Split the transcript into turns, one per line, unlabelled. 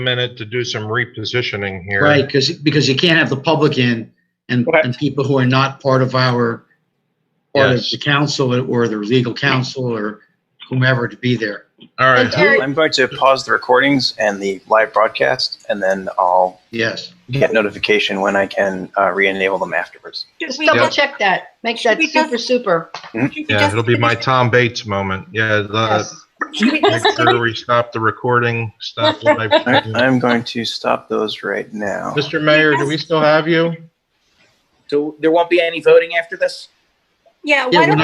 minute to do some repositioning here.
Right, because, because you can't have the public in and,
Okay.
and people who are not part of our, part of
Yes.
the council or the legal counsel or whomever to be there.
All right,
Terry-
I'm going to pause the recordings and the live broadcast, and then I'll
Yes.
get notification when I can uh, re-enable them afterwards.
Just
We
double
Yeah.
check that. Make
Should
that
we just-
super, super.
yeah, it'll be my Tom Bates moment. Yeah,
uh,
the,
Yes.
Should we
make
just
sure we stop the recording, stop the live.
All right,
stream.
I'm going to stop those right now.
Mr. Mayor, do we still have you?
So there won't be any voting after this?
Yeah,
Yeah,
why
we're
don't